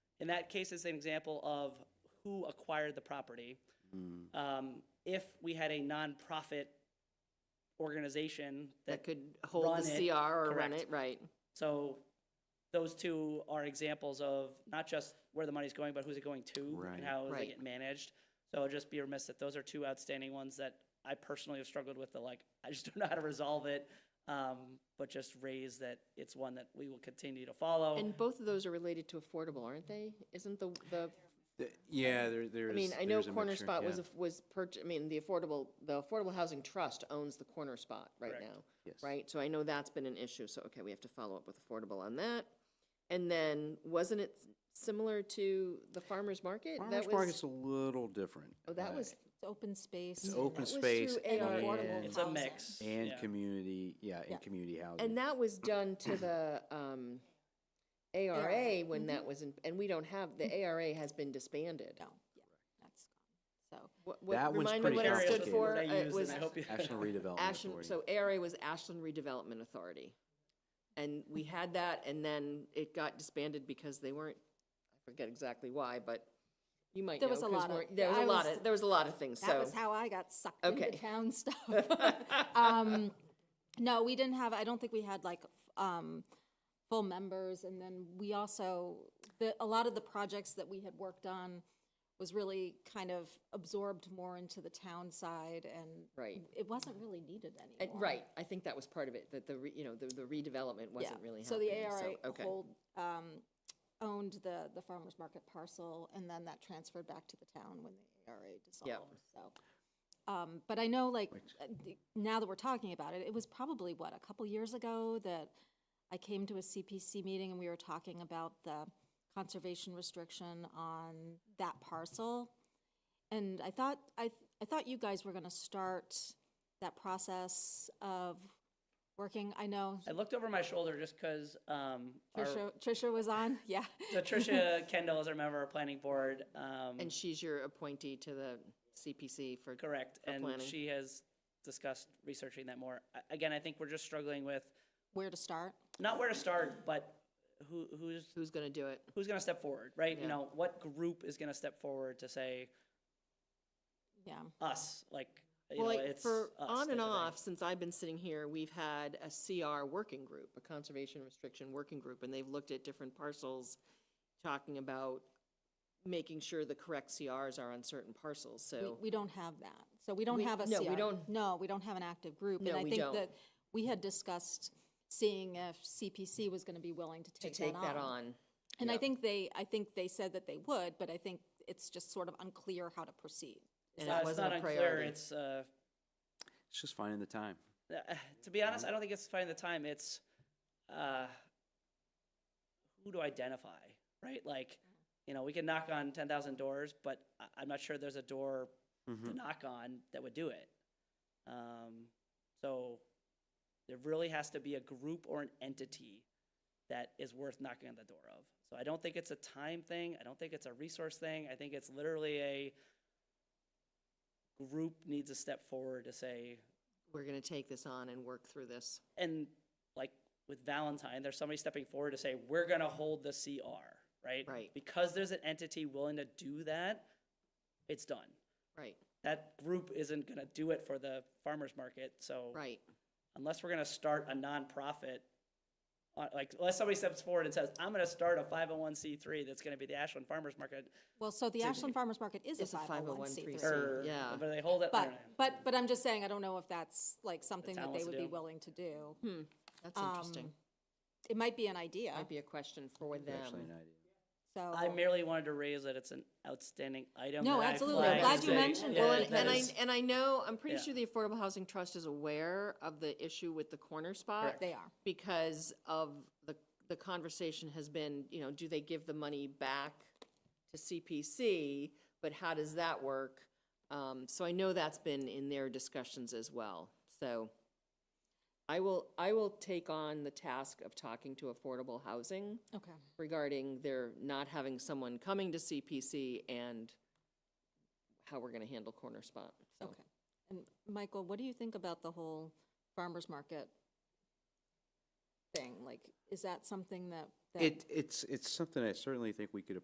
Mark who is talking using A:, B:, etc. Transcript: A: In that case, it's an example of who acquired the property.
B: Mm.
A: Um, If we had a nonprofit organization
C: that
A: that,
C: could hold
A: run
C: the
A: it,
C: CR or run
A: correct.
C: it, right?
A: so those two are examples of not just where the money's going, but who's it going to
B: Right.
A: and how they
C: Right.
A: get managed. So I'd just be remiss that those are two outstanding ones that I personally have struggled with, the like, I just don't know how to resolve it. um, But just raise that it's one that we will continue to
B: Oh.
A: follow.
C: And both of those are related to affordable, aren't they? Isn't the, the,
B: The- Yeah, there, there's.
C: I mean, I know
B: there's a
C: Corner
B: mixture,
C: Spot was,
B: yeah.
C: a- was purch, I mean, the affordable, the Affordable Housing Trust owns the Corner Spot right
A: Correct.
C: now.
B: Yes.
C: Right, so I know that's been an issue, so, okay, we have to follow up with affordable on that. And then, wasn't it similar to the farmer's market? That
B: Farmers
C: was-
B: market's a little different.
C: Oh, that
B: uh,
C: was,
D: It's open space.
B: It's open
D: That was
B: space
D: through
B: and
D: AR.
B: affordable
A: It's a
D: housing.
A: mix.
B: And
A: yeah.
B: community, yeah,
D: Yeah.
B: and community housing.
C: and that was done to the, um, ARA when
A: mm-hmm.
C: that was in, and we don't have, the ARA has been disbanded.
D: No, yeah, that's gone. So,
C: What,
B: That one's
C: what, remind me
B: pretty
C: what it
B: complicated.
C: stood for? Uh,
A: What I
C: It
A: use,
C: was
A: and I hope you-
B: National Redevelopment
C: Ashland,
B: Authority.
C: so ARA was Ashland Redevelopment Authority. And we had that, and then it got disbanded because they weren't, I forget exactly why, but you might know.
D: There was a
C: 'cause
D: lot of-
C: we're- There was
D: I
C: a lot
D: was-
C: of, there was a lot of things, so.
D: that was how I got sucked into
C: Okay.
D: town stuff. Um, No, we didn't have, I don't think we had like, f- um, full members, and then we also, the, a lot of the projects that we had worked on was really kind of absorbed more into the town side, and
C: Right.
D: it wasn't really needed
C: And-
D: anymore.
C: Right, I think that was part of it, that the, re- you know, the the redevelopment
D: Yeah.
C: wasn't really happening.
D: So the ARA
C: okay.
D: hold, um, owned the, the farmer's market parcel, and then that transferred back to the town when the ARA dissolved, so. Um, but I know, like, uh, the- now that we're talking about it, it was probably, what, a couple years ago that I came to a CPC meeting and we were talking about the conservation restriction on that parcel. And I thought, I, I thought you guys were gonna start that process of working, I know
A: I looked over my shoulder just because um, our-
D: Trisha, Trisha was on, yeah.
A: so Tricia Kendall is our member of our planning board. Um,
C: And she's your appointee to the CPC for.
A: correct, and
C: planning.
A: she has discussed researching that more. A- Again, I think we're just struggling with
D: Where to start?
A: not where to start, but who who's
C: Who's going to do it?
A: who's going to step forward, right?
C: Yeah.
A: You know, what group is going to step forward to say
D: Yeah,
A: us? Like, you
C: Well,
A: know,
C: like,
A: it's
C: for
A: us
C: on
A: type
C: and
A: of thing.
C: off, since I've been sitting here, we've had a CR working group, a conservation restriction working group, and they've looked at different parcels, talking about making sure the correct CRs are on certain parcels,
D: we,
C: so.
D: we don't have that. So we don't
C: We-
D: have a
C: no, we
D: CR.
C: don't-
D: No, we don't have an active group.
C: No,
D: And I
C: we
D: think
C: don't.
D: that we had discussed seeing if CPC was gonna be willing to take that on. And I think they, I think they said that they would, but I think it's just sort of unclear how to proceed.
C: And
A: Uh,
C: it
A: it's
C: wasn't
A: not
C: a
A: unclear.
C: priority.
A: It's uh,
B: It's just finding the time.
A: Uh, to be honest, I don't think it's finding the time. It's uh, who to identify, right? Like, you know, we can knock on ten thousand doors, but I- I'm not sure there's a door
C: Mm-hmm.
B: Hmm.
A: to knock on that would do it. Um, so there really has to be a group or an entity that is worth knocking on the door of. So I don't think it's a time thing. I don't think it's a resource thing. I think it's literally a group needs to step forward to say,
C: We're going to take this on and work through this.
A: and like with Valentine, there's somebody stepping forward to say, we're gonna hold the CR, right?
C: Right.
A: Because there's an entity willing to do that, it's done.
C: Right,
A: That group isn't gonna do it for the farmer's market, so.
C: right.
A: Unless we're gonna start a nonprofit, uh, like, unless somebody steps forward and says, I'm gonna start a five oh one C three that's gonna be the Ashland Farmers Market,
D: Well, so the Ashland Farmers Market is a
C: It's a
D: 501c3.
C: 501c3.
A: or,
C: yeah.
A: but they hold it, I don't
D: But,
A: know.
D: but, but I'm just saying, I don't know if that's like something that
A: town
D: they
A: wants to
D: would be
A: do.
D: willing to do.
C: That's interesting.
D: It might be an idea,
C: Might be a question for
B: It's Actually,
C: them.
B: an idea.
D: so.
A: I merely wanted to raise that it's an outstanding item.
D: No,
A: that I
D: absolutely. I'm
A: flagged
D: glad
A: as
D: you
A: a-
D: mentioned
A: yeah,
D: it.
C: Well, and,
A: that
C: and I,
A: is-
C: and I know, I'm pretty
A: Yeah.
C: sure the Affordable Housing Trust is aware of the issue with the corner spot.
D: They are.
C: Because of the, the conversation has been, you know, do they give the money back to CPC? But how does that work? Um, so I know that's been in their discussions as well. So I will, I will take on the task of talking to Affordable Housing
D: Okay.
C: regarding their not having someone coming to CPC and how we're gonna handle corner spot, so.
D: Okay. And Michael, what do you think about the whole farmer's market thing? Like, is that something that, that
B: It, it's, it's something I certainly think we could